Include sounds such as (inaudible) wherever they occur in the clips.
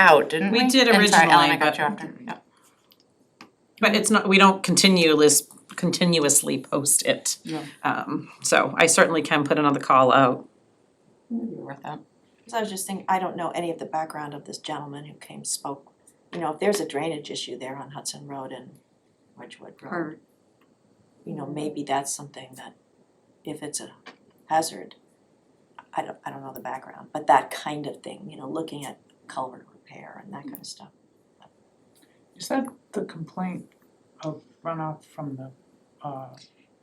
out, didn't we? We did And sorry, Ellen, originally, I got but- you after, yeah. But it's not, we don't continuous, continuously post it. Yeah. Um, so I certainly can put another call out. Maybe worth that. Cause I was just thinking, I don't know any of the background of this gentleman who came spoke. You know, if there's a drainage issue there on Hudson Road and Wedgewood Road, you know, maybe that's something that, if it's a hazard, I don't, I don't know the background, but that kind of thing, you know, looking at culvert repair and that kind of stuff. Is that the complaint of runoff from the, uh,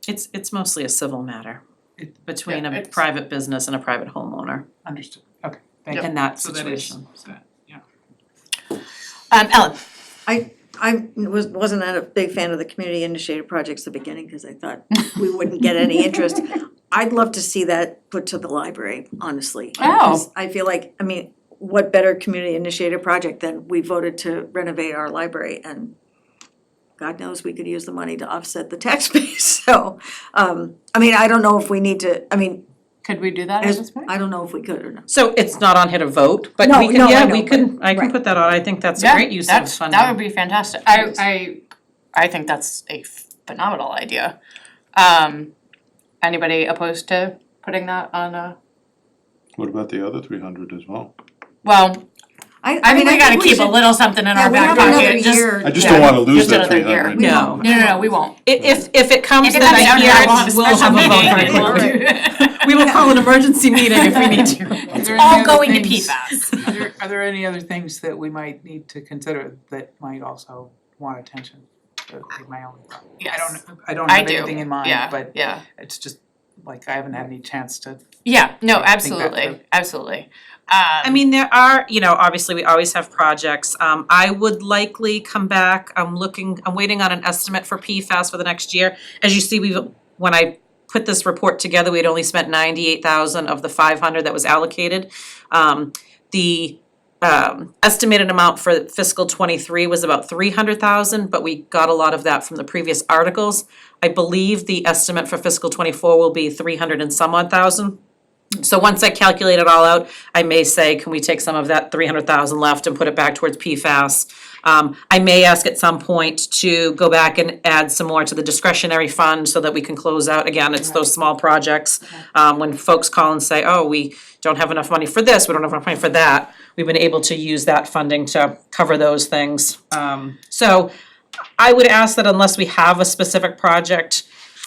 It's, it's mostly a civil matter It- between yeah, a it's- private business and a private homeowner understood, okay, thank you. in that So that is situation. that, yeah. Um, Ellen, I was, wasn't that a big fan of the community initiated projects at the beginning, cause I (laughs) thought we wouldn't get any interest. I'd love to see that put to the library, honestly. Oh. 'cause I feel like, I mean, what better community initiated project than we voted to renovate our library and God knows we could use the money to offset the tax (laughs) base, so, um, I mean, I don't know if we need to, I mean, could we do that at this as, point? I don't know if we could or not. So it's not on here to vote, but No, we can, no, I yeah, know, we can, I can right. put that on. I think that's a Yeah, great use of that's- funding. That would be fantastic. I, I, I think that's a phenomenal idea. Um, anybody opposed to putting that on a, What about the other three hundred as well? well, I, I mean, think we gotta think we keep a should- little something in Yeah, our we back have pocket, another just, year. I just Yeah. don't wanna lose Just that another three year. hundred. We No. don't. no, no, no, we won't. I- If, if it comes that I comes down, hear it, we'll have a vote very special quickly. meeting. (laughs) We will call an emergency meeting if we need to. It's All going to PFAS. Are there, are there any other things that we might need to consider that might also want attention? That would be my only thought. I Yes, don't, I don't I have do. anything in Yeah. mind, but yeah. it's just, like, I haven't had any chance to, Yeah, no, Think that absolutely, through. absolutely. Um, I mean, there are, you know, obviously, we always have projects. Um, I would likely come back, I'm looking, I'm waiting on an estimate for PFAS for the next year. As you see, we've, when I put this report together, we had only spent ninety-eight thousand of the five hundred that was allocated. Um, the, um, estimated amount for fiscal twenty-three was about three hundred thousand, but we got a lot of that from the previous articles. I believe the estimate for fiscal twenty-four will be three hundred and some odd thousand. So once I calculate it all out, I may say, can we take some of that three hundred thousand left and put it back towards PFAS? Um, I may ask at some point to go back and add some more to the discretionary fund so that we can close out, again, it's those small projects. Um, when folks call and say, oh, we don't have enough money for this, we don't have enough money for that, we've been able to use that funding to cover those things. Um, so I would ask that unless we have a specific project,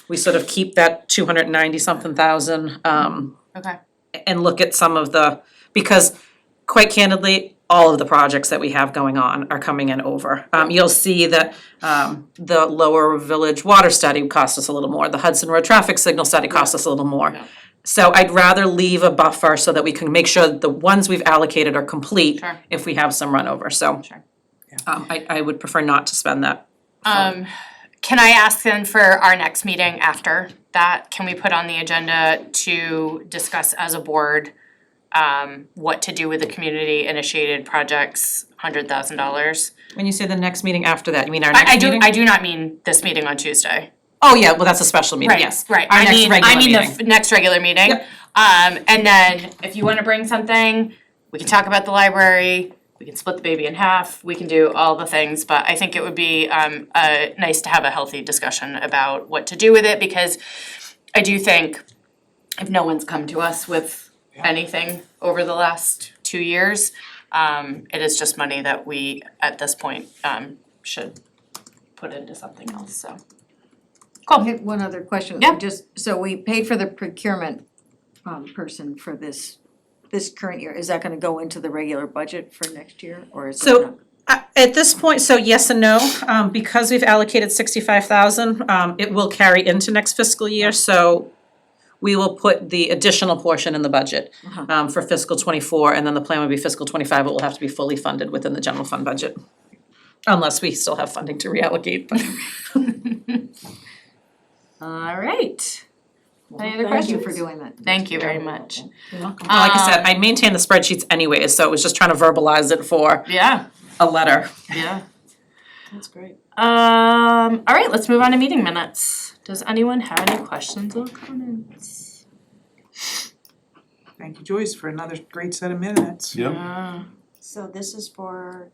we sort of keep that two hundred and ninety something thousand, um, Okay, and look at some of the, because quite candidly, all of the projects that we have going on are coming in over. Um, you'll see that, um, the Lower Village Water Study cost us a little more, the Hudson Road Traffic Signal Study cost us a little more. Yeah. So I'd rather leave a buffer so that we can make sure that the ones we've allocated are complete Sure. if we have some run over, so. Sure. Um, I, I would prefer not to spend that. um, can I ask then for our next meeting after that, can we put on the agenda to discuss as a board um, what to do with the community initiated projects, hundred thousand dollars? When you say the next meeting after that, you mean our I, next I do, meeting? I do not mean this meeting on Tuesday. Oh, yeah, well, that's a special meeting, Right, yes. Right, Our I next mean, regular I mean the meeting. f- next regular meeting. Yep. Um, and then if you wanna bring something, we can talk about the library, we can split the baby in half, we can do all the things, but I think it would be, um, uh, nice to have a healthy discussion about what to do with it, because I do think if no one's come to us with anything over the last two years, um, it is just money that we, at this point, um, should put into something else, so. I have one other question. Yeah. Just, so we paid for the procurement um person for this, this current year. Is that gonna go into the regular budget for next year or is it So- not? Uh, At this point, so yes and no, um, because we've allocated sixty-five thousand, um, it will carry into next fiscal year, so we will put the additional portion in the budget, um, for fiscal twenty-four, and then the plan would be fiscal twenty-five, it will have to be fully funded within the general fund budget. Unless we still have funding to reallocate, but All right. Any other Thank you questions? for doing that. Thank you very much. like I said, I maintain the spreadsheets anyways, so it was just trying to verbalize it Uh, for Yeah, a letter. yeah. That's great. Um, all right, let's move on to meeting minutes. Does anyone have any questions or comments? thank you Joyce for another great set of minutes. Yep, Uh, So this is for